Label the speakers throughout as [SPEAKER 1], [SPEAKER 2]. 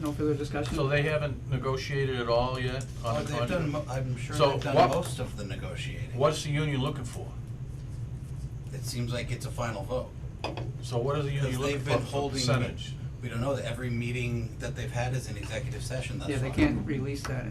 [SPEAKER 1] no further discussion?
[SPEAKER 2] So they haven't negotiated at all yet on the
[SPEAKER 3] Oh, they've done,
[SPEAKER 2] contract?
[SPEAKER 3] mo- I'm sure
[SPEAKER 2] So
[SPEAKER 3] they've done
[SPEAKER 2] what-
[SPEAKER 3] most of the negotiating.
[SPEAKER 2] What's the union looking for?
[SPEAKER 3] It seems like it's a final vote.
[SPEAKER 2] So what is the
[SPEAKER 3] Because
[SPEAKER 2] union looking
[SPEAKER 3] they've
[SPEAKER 2] for
[SPEAKER 3] been
[SPEAKER 2] for
[SPEAKER 3] holding,
[SPEAKER 2] percentage?
[SPEAKER 3] we don't know, that every meeting that they've had is an executive session, that's
[SPEAKER 1] Yeah, they
[SPEAKER 3] why.
[SPEAKER 1] can't release that.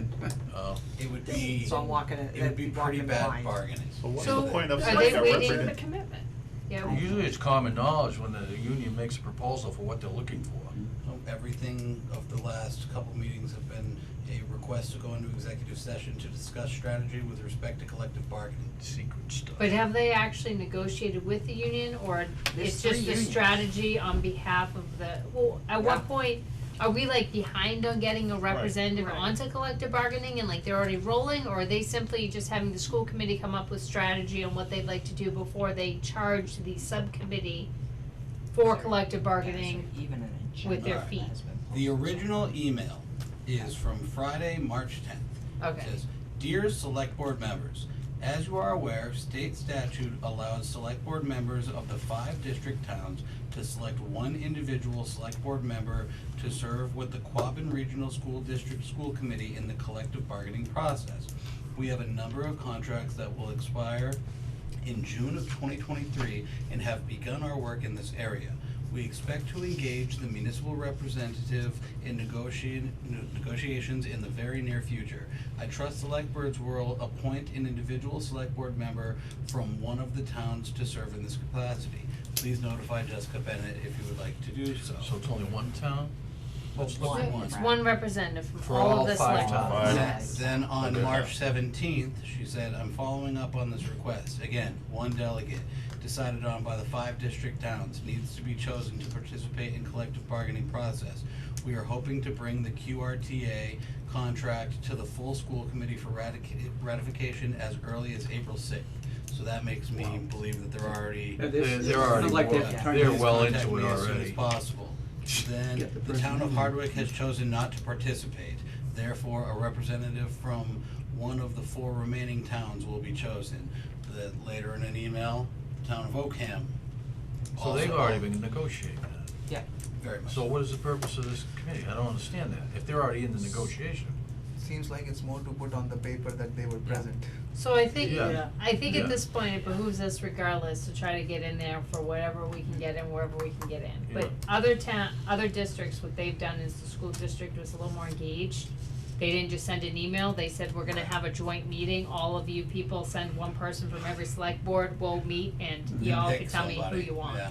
[SPEAKER 2] Uh,
[SPEAKER 3] It would be,
[SPEAKER 4] So I'm walking it-
[SPEAKER 3] it would be
[SPEAKER 4] walking
[SPEAKER 3] pretty
[SPEAKER 4] it
[SPEAKER 3] bad
[SPEAKER 4] blind.
[SPEAKER 3] bargaining.
[SPEAKER 5] But what's
[SPEAKER 6] So
[SPEAKER 5] the point of
[SPEAKER 6] are
[SPEAKER 5] saying
[SPEAKER 6] they
[SPEAKER 5] that
[SPEAKER 6] waiting for
[SPEAKER 5] represent-
[SPEAKER 6] the commitment? Yeah.
[SPEAKER 2] Usually it's common knowledge when the union makes a proposal for what they're looking for.
[SPEAKER 3] So Everything of the last couple meetings have been a request to go into executive session to discuss strategy with respect to collective bargaining.
[SPEAKER 2] Secret stuff.
[SPEAKER 6] But have they actually negotiated with the union or
[SPEAKER 4] There's
[SPEAKER 6] it's
[SPEAKER 4] three
[SPEAKER 6] just the
[SPEAKER 4] unions.
[SPEAKER 6] strategy on behalf of the, well, at what
[SPEAKER 4] Yeah.
[SPEAKER 6] point are we like behind on getting a representative
[SPEAKER 4] Right.
[SPEAKER 6] onto collective bargaining and like they're already rolling? Or are they simply just having the school committee come up with strategy on what they'd like to do before they charge the subcommittee for collective bargaining? with their feet.
[SPEAKER 3] The original email is from Friday, March tenth.
[SPEAKER 6] Okay.
[SPEAKER 3] Says, Dear Select Board members, as you are aware, state statute allows Select Board members of the five district towns to select one individual Select Board member to serve with the Quabbin Regional School District School Committee in the collective bargaining process. We have a number of contracts that will expire in June of twenty twenty-three and have begun our work in this area. We expect to engage the municipal representative in negotiate, negotiations in the very near future. I trust select boards will appoint an individual select board member from one of the towns to serve in this capacity. Please notify Jessica Bennett if you would like to do so.
[SPEAKER 2] So it's only one town?
[SPEAKER 3] That's
[SPEAKER 6] So
[SPEAKER 3] one.
[SPEAKER 6] It's one representative from
[SPEAKER 2] For
[SPEAKER 6] all
[SPEAKER 2] all
[SPEAKER 6] of the
[SPEAKER 2] five
[SPEAKER 6] select.
[SPEAKER 2] towns.
[SPEAKER 3] Then-
[SPEAKER 4] Yes.
[SPEAKER 3] Then on
[SPEAKER 2] Okay.
[SPEAKER 3] March seventeenth, she said, I'm following up on this request. Again, one delegate, decided on by the five district towns, needs to be chosen to participate in collective bargaining process. We are hoping to bring the QRTA contract to the full school committee for ratica- ratification as early as April sixth. So that makes me believe that they're already
[SPEAKER 1] They're,
[SPEAKER 2] They're- they're already
[SPEAKER 3] yeah,
[SPEAKER 2] They're
[SPEAKER 3] please
[SPEAKER 2] well
[SPEAKER 3] contact
[SPEAKER 2] into it
[SPEAKER 3] me as soon
[SPEAKER 2] already.
[SPEAKER 3] as possible. Then,
[SPEAKER 1] Get the
[SPEAKER 3] the town of
[SPEAKER 1] person.
[SPEAKER 3] Hardwick has chosen not to participate. Therefore, a representative from one of the four remaining towns will be chosen. The, later in an email, town of Oakham
[SPEAKER 2] So
[SPEAKER 3] also.
[SPEAKER 2] they've already been negotiating that.
[SPEAKER 4] Yeah,
[SPEAKER 3] Very much.
[SPEAKER 2] So what is the purpose of this committee? I don't understand that. If they're already in the negotiation.
[SPEAKER 7] Seems like it's more to put on the paper that they were present.
[SPEAKER 6] So I think,
[SPEAKER 2] Yeah.
[SPEAKER 6] I think
[SPEAKER 2] Yeah.
[SPEAKER 6] at this point, it behooves us regardless to try to get in there for whatever we can get in, wherever we can get in. But other town, other districts, what they've done is the school district was a little more engaged. They didn't just send an email, they said, we're gonna have a joint meeting, all of you people send one person from every select board, we'll meet and
[SPEAKER 3] You
[SPEAKER 6] y'all
[SPEAKER 3] pick
[SPEAKER 6] can tell me who
[SPEAKER 3] somebody,
[SPEAKER 6] you want.
[SPEAKER 3] yeah.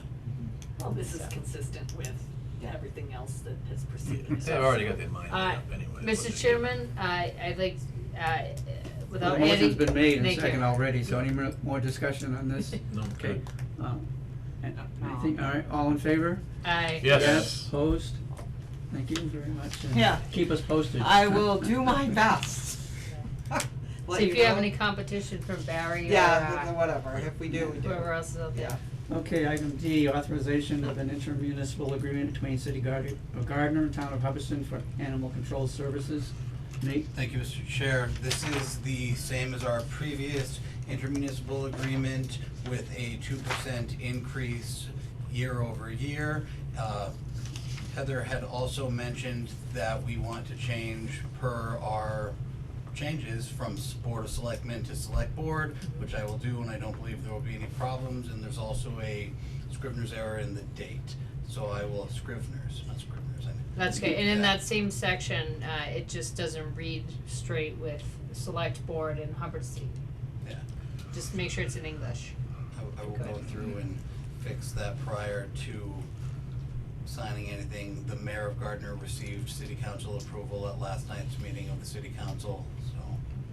[SPEAKER 8] Well, this is consistent with
[SPEAKER 4] Yeah.
[SPEAKER 8] everything else that has preceded us.
[SPEAKER 2] They've already got their mind made
[SPEAKER 6] Uh,
[SPEAKER 2] up anyway. what
[SPEAKER 6] Mr.
[SPEAKER 2] they-
[SPEAKER 6] Chairman, I, I'd like, uh, without
[SPEAKER 1] The
[SPEAKER 6] adding.
[SPEAKER 1] motion's been made and
[SPEAKER 6] Thank you.
[SPEAKER 1] second already, so any more, more discussion on this?
[SPEAKER 2] No,
[SPEAKER 1] Okay.
[SPEAKER 2] good.
[SPEAKER 1] Um, and I think, all right, all in favor?
[SPEAKER 6] Aye.
[SPEAKER 2] Yes.
[SPEAKER 1] Opposed? Thank you very much. and
[SPEAKER 4] Yeah.
[SPEAKER 1] Keep us posted.
[SPEAKER 4] I will do my best. Let
[SPEAKER 6] See if you have
[SPEAKER 4] know.
[SPEAKER 6] any competition from Barry or
[SPEAKER 4] Yeah, th- th-
[SPEAKER 6] uh,
[SPEAKER 4] whatever, if we do, we do.
[SPEAKER 6] whoever else is out there.
[SPEAKER 4] Yeah.
[SPEAKER 1] Okay, item D, authorization of an intermunicipal agreement between City Gar- Gardner and Town of Hubbardston for animal control services. Nate?
[SPEAKER 3] Thank you, Mr. Chair. This is the same as our previous intermunicipal agreement with a two percent increase year over year. Uh, Heather had also mentioned that we want to change per our changes from s- Board of Selectmen to Select Board, which I will do, and I don't believe there will be any problems, and there's also a Scrivener's error in the date. So I will, Scrivener's, not Scrivener's, I mean.
[SPEAKER 6] That's good, and in
[SPEAKER 3] Yeah.
[SPEAKER 6] that same section, uh, it just doesn't read straight with select board and Hubbardston.
[SPEAKER 3] Yeah.
[SPEAKER 6] Just make sure it's in English.
[SPEAKER 3] I, I will go through and fix that prior to signing anything. The mayor of Gardner received city council approval at last night's meeting of the city council, so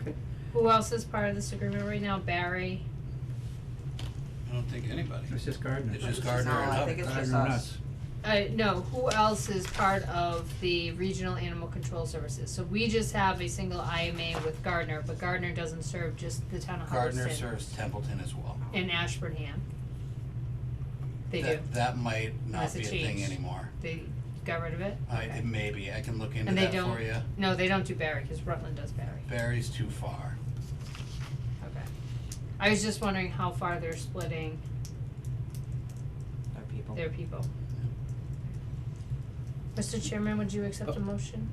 [SPEAKER 1] Okay.
[SPEAKER 6] Who else is part of this agreement right now? Barry?
[SPEAKER 3] I don't think anybody.
[SPEAKER 1] It's just Gardner.
[SPEAKER 3] It's just Gardner and
[SPEAKER 4] No, I
[SPEAKER 3] Hubbard.
[SPEAKER 4] think it's just
[SPEAKER 1] Gardner and
[SPEAKER 4] us.
[SPEAKER 6] Uh, no, who else is part of the regional animal control services? So we just have a single IMA with Gardner, but Gardner doesn't serve just the town of Hubbardston.
[SPEAKER 3] Gardner serves Templeton as well.
[SPEAKER 6] And Ashburnham. They do,
[SPEAKER 3] That- That might not
[SPEAKER 6] Unless
[SPEAKER 3] be a
[SPEAKER 6] it
[SPEAKER 3] thing
[SPEAKER 6] changed.
[SPEAKER 3] anymore.
[SPEAKER 6] they got rid of it?
[SPEAKER 3] I,
[SPEAKER 6] Okay.
[SPEAKER 3] it may be, I can look into
[SPEAKER 6] And they
[SPEAKER 3] that for you.
[SPEAKER 6] don't, no, they don't do Barry, cause Rutland does Barry,
[SPEAKER 3] Barry's too far.
[SPEAKER 6] okay. I was just wondering how far they're splitting
[SPEAKER 4] Our people.
[SPEAKER 6] their people. Mr. Chairman, would you accept a motion?